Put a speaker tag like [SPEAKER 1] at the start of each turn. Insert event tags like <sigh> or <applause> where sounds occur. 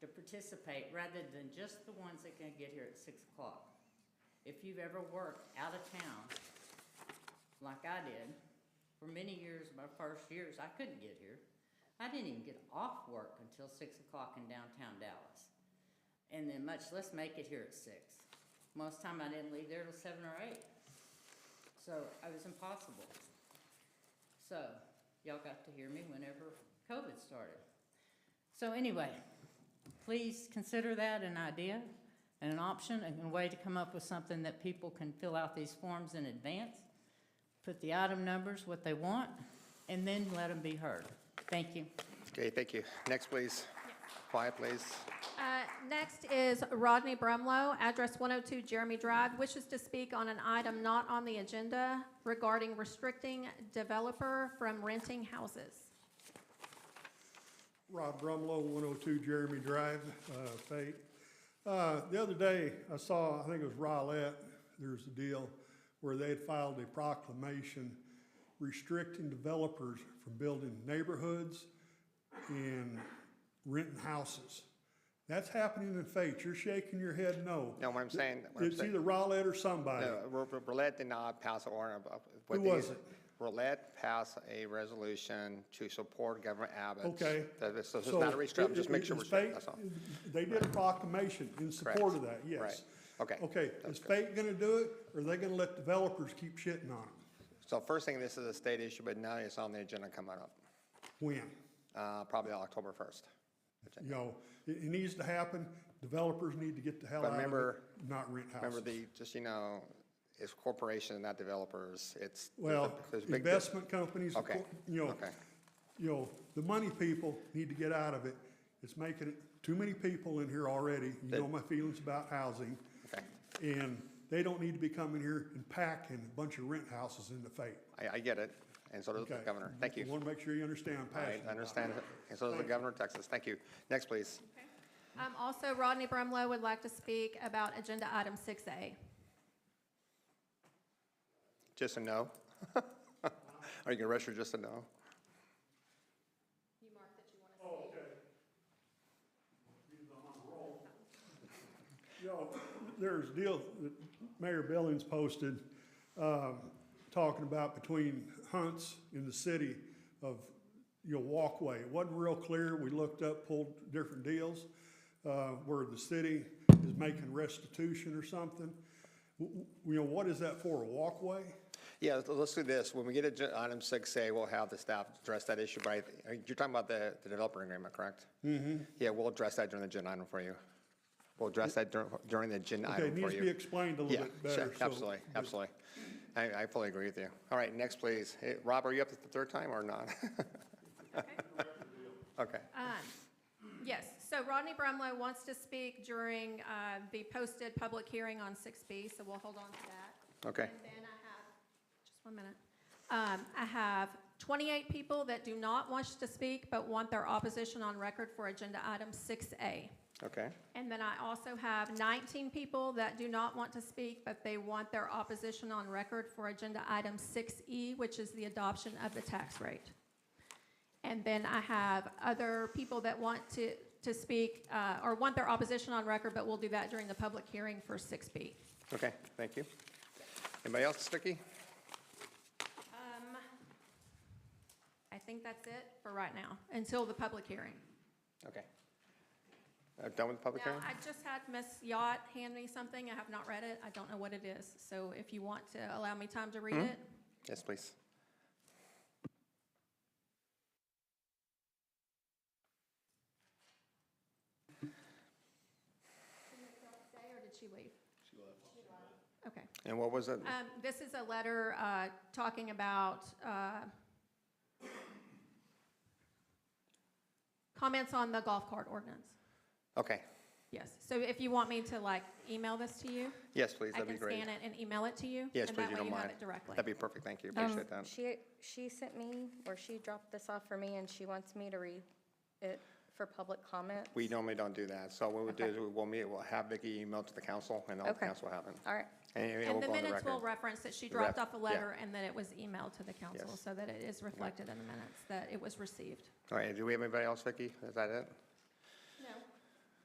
[SPEAKER 1] participate rather than just the ones that can get here at six o'clock. If you've ever worked out of town, like I did, for many years, my first years, I couldn't get here. I didn't even get off work until six o'clock in downtown Dallas. And then much less make it here at six. Most time I didn't leave there till seven or eight. So it was impossible. So y'all got to hear me whenever COVID started. So anyway, please consider that an idea and an option and a way to come up with something that people can fill out these forms in advance, put the item numbers, what they want, and then let them be heard. Thank you.
[SPEAKER 2] Okay, thank you. Next, please. Quiet, please.
[SPEAKER 3] Uh, Next is Rodney Brumlow, address 102 Jeremy Drive, wishes to speak on an item not on the agenda regarding restricting developer from renting houses.
[SPEAKER 4] Rob Brumlow, 102 Jeremy Drive, uh, Fate. Uh, The other day, I saw, I think it was Rowlett, there's a deal where they had filed a proclamation restricting developers from building neighborhoods and renting houses. That's happening in Fate. You're shaking your head no.
[SPEAKER 2] No, what I'm saying- what I'm
[SPEAKER 4] It's
[SPEAKER 2] saying-
[SPEAKER 4] either Rowlett or somebody.
[SPEAKER 2] No, Ro- Ro- Roulette did not pass an order. of- of- what
[SPEAKER 4] Who
[SPEAKER 2] they-
[SPEAKER 4] was it?
[SPEAKER 2] Roulette passed a resolution to support Governor Abbott.
[SPEAKER 4] Okay.
[SPEAKER 2] That is- So it's
[SPEAKER 4] So
[SPEAKER 2] not a restriction,
[SPEAKER 4] it-
[SPEAKER 2] just make sure
[SPEAKER 4] it-
[SPEAKER 2] we're
[SPEAKER 4] it's
[SPEAKER 2] strict,
[SPEAKER 4] fake-
[SPEAKER 2] that's all.
[SPEAKER 4] They did a proclamation in support of that, yes.
[SPEAKER 2] Right. Okay.
[SPEAKER 4] Okay,
[SPEAKER 2] That's
[SPEAKER 4] is
[SPEAKER 2] good.
[SPEAKER 4] Fate gonna do it, or are they gonna let developers keep shitting on it?
[SPEAKER 2] So first thing, this is a state issue, but now it's on the agenda coming up,
[SPEAKER 4] When?
[SPEAKER 2] uh, probably October 1st.
[SPEAKER 4] You know, it, it needs to happen, developers need to get the hell
[SPEAKER 2] But
[SPEAKER 4] out of
[SPEAKER 2] remember-
[SPEAKER 4] it, not rent houses.
[SPEAKER 2] Remember the, just, you know, it's corporations, not developers, it's. there's a-
[SPEAKER 4] Well,
[SPEAKER 2] there's a big di-
[SPEAKER 4] investment companies, of
[SPEAKER 2] Okay,
[SPEAKER 4] cour- you know,
[SPEAKER 2] okay.
[SPEAKER 4] you know, the money people need to get out of it. It's making it, too many people in here already, you know my feelings about housing.
[SPEAKER 2] Okay.
[SPEAKER 4] And they don't need to be coming here and packing a bunch of rent houses into fate.
[SPEAKER 2] I, I get it, and so does the
[SPEAKER 4] Okay.
[SPEAKER 2] governor. Thank you.
[SPEAKER 4] Want to make sure you understand I'm
[SPEAKER 2] I
[SPEAKER 4] passionate. about <laughs>
[SPEAKER 2] understand,
[SPEAKER 4] that.
[SPEAKER 2] and so does the
[SPEAKER 4] Thank you.
[SPEAKER 2] governor of Texas. Thank you. Next, please.
[SPEAKER 3] Um, Also, Rodney Brumlow would like to speak about agenda item 6A.
[SPEAKER 2] Just a no? <laughs> Are you going to rush or just a no?
[SPEAKER 3] You mark that you want to speak.
[SPEAKER 4] You know, there's a deal that Mayor Billings posted, um, talking about between hunts in the city of, you know, walkway. It wasn't real clear. We looked up, pulled different deals, uh, where the city is making restitution or something. W- w- You know, what is that for, a walkway?
[SPEAKER 2] Yeah, let's- let's do this. When we get to item 6A, we'll have the staff address that issue, but I- you're talking about the the developer agreement, correct? Mm-hmm. Yeah, we'll address that during the agenda item for you. We'll address that dur- during the agenda
[SPEAKER 4] Okay,
[SPEAKER 2] item
[SPEAKER 4] it
[SPEAKER 2] for you.
[SPEAKER 4] needs to be explained a little
[SPEAKER 2] Yeah,
[SPEAKER 4] bit better,
[SPEAKER 2] sure,
[SPEAKER 4] so-
[SPEAKER 2] Absolutely, absolutely. I I fully agree with you. All right, next, please. Hey, Rob, are you up the third time or not? <laughs> Okay.
[SPEAKER 3] Um, Yes, so Rodney Brumlow wants to speak during uh, the posted public hearing on 6B, so we'll hold on to that.
[SPEAKER 2] Okay.
[SPEAKER 3] And then I have, just one minute. Um, I have 28 people that do not wish to speak but want their opposition on record for agenda item 6A.
[SPEAKER 2] Okay.
[SPEAKER 3] And then I also have 19 people that do not want to speak but they want their opposition on record for agenda item 6E, which is the adoption of the tax rate. And then I have other people that want to, to speak, uh, or want their opposition on record, but we'll do that during the public hearing for 6B.
[SPEAKER 2] Okay, thank you. Anybody else, Vicky?
[SPEAKER 3] Um, I think that's it for right now, until the public hearing.
[SPEAKER 2] Okay. Uh, Done with the public
[SPEAKER 3] Now,
[SPEAKER 2] hearing?
[SPEAKER 3] I just had Ms. Yacht hand me something, I have not read it, I don't know what it is, so if you want to allow me time to read it.
[SPEAKER 2] Yes, please.
[SPEAKER 3] Stay, or did she leave? She left. Okay.
[SPEAKER 2] And what was it?
[SPEAKER 3] Um, This is a letter uh, talking about uh, comments on the golf cart ordinance.
[SPEAKER 2] Okay,
[SPEAKER 3] Yes, so if you want me to like email this to you,
[SPEAKER 2] yes, please,
[SPEAKER 3] I
[SPEAKER 2] that'd be
[SPEAKER 3] can
[SPEAKER 2] great.
[SPEAKER 3] scan it and email it to you.
[SPEAKER 2] Yes, please, you don't mind.
[SPEAKER 3] And that way you have it directly.
[SPEAKER 2] That'd be perfect, thank you,
[SPEAKER 5] Um,
[SPEAKER 2] appreciate that.
[SPEAKER 5] She, she sent me, or she dropped this off for me, and she wants me to read it for public comment.
[SPEAKER 2] We normally don't do that, so what we'll do
[SPEAKER 5] Okay.
[SPEAKER 2] is we- we'll meet, we'll have Vicky email to the council, and all the
[SPEAKER 5] Okay.
[SPEAKER 2] council will have it.
[SPEAKER 5] All right.
[SPEAKER 2] And it will
[SPEAKER 3] And the
[SPEAKER 2] go on the
[SPEAKER 3] minutes will
[SPEAKER 2] record.
[SPEAKER 3] reference that she
[SPEAKER 2] The ref-
[SPEAKER 3] dropped off a
[SPEAKER 2] yeah.
[SPEAKER 3] letter and that it was emailed to the council,
[SPEAKER 2] Yes.
[SPEAKER 3] so that it is reflected in the minutes that it was received.
[SPEAKER 2] All right, do we have anybody else, Vicky? Is that it?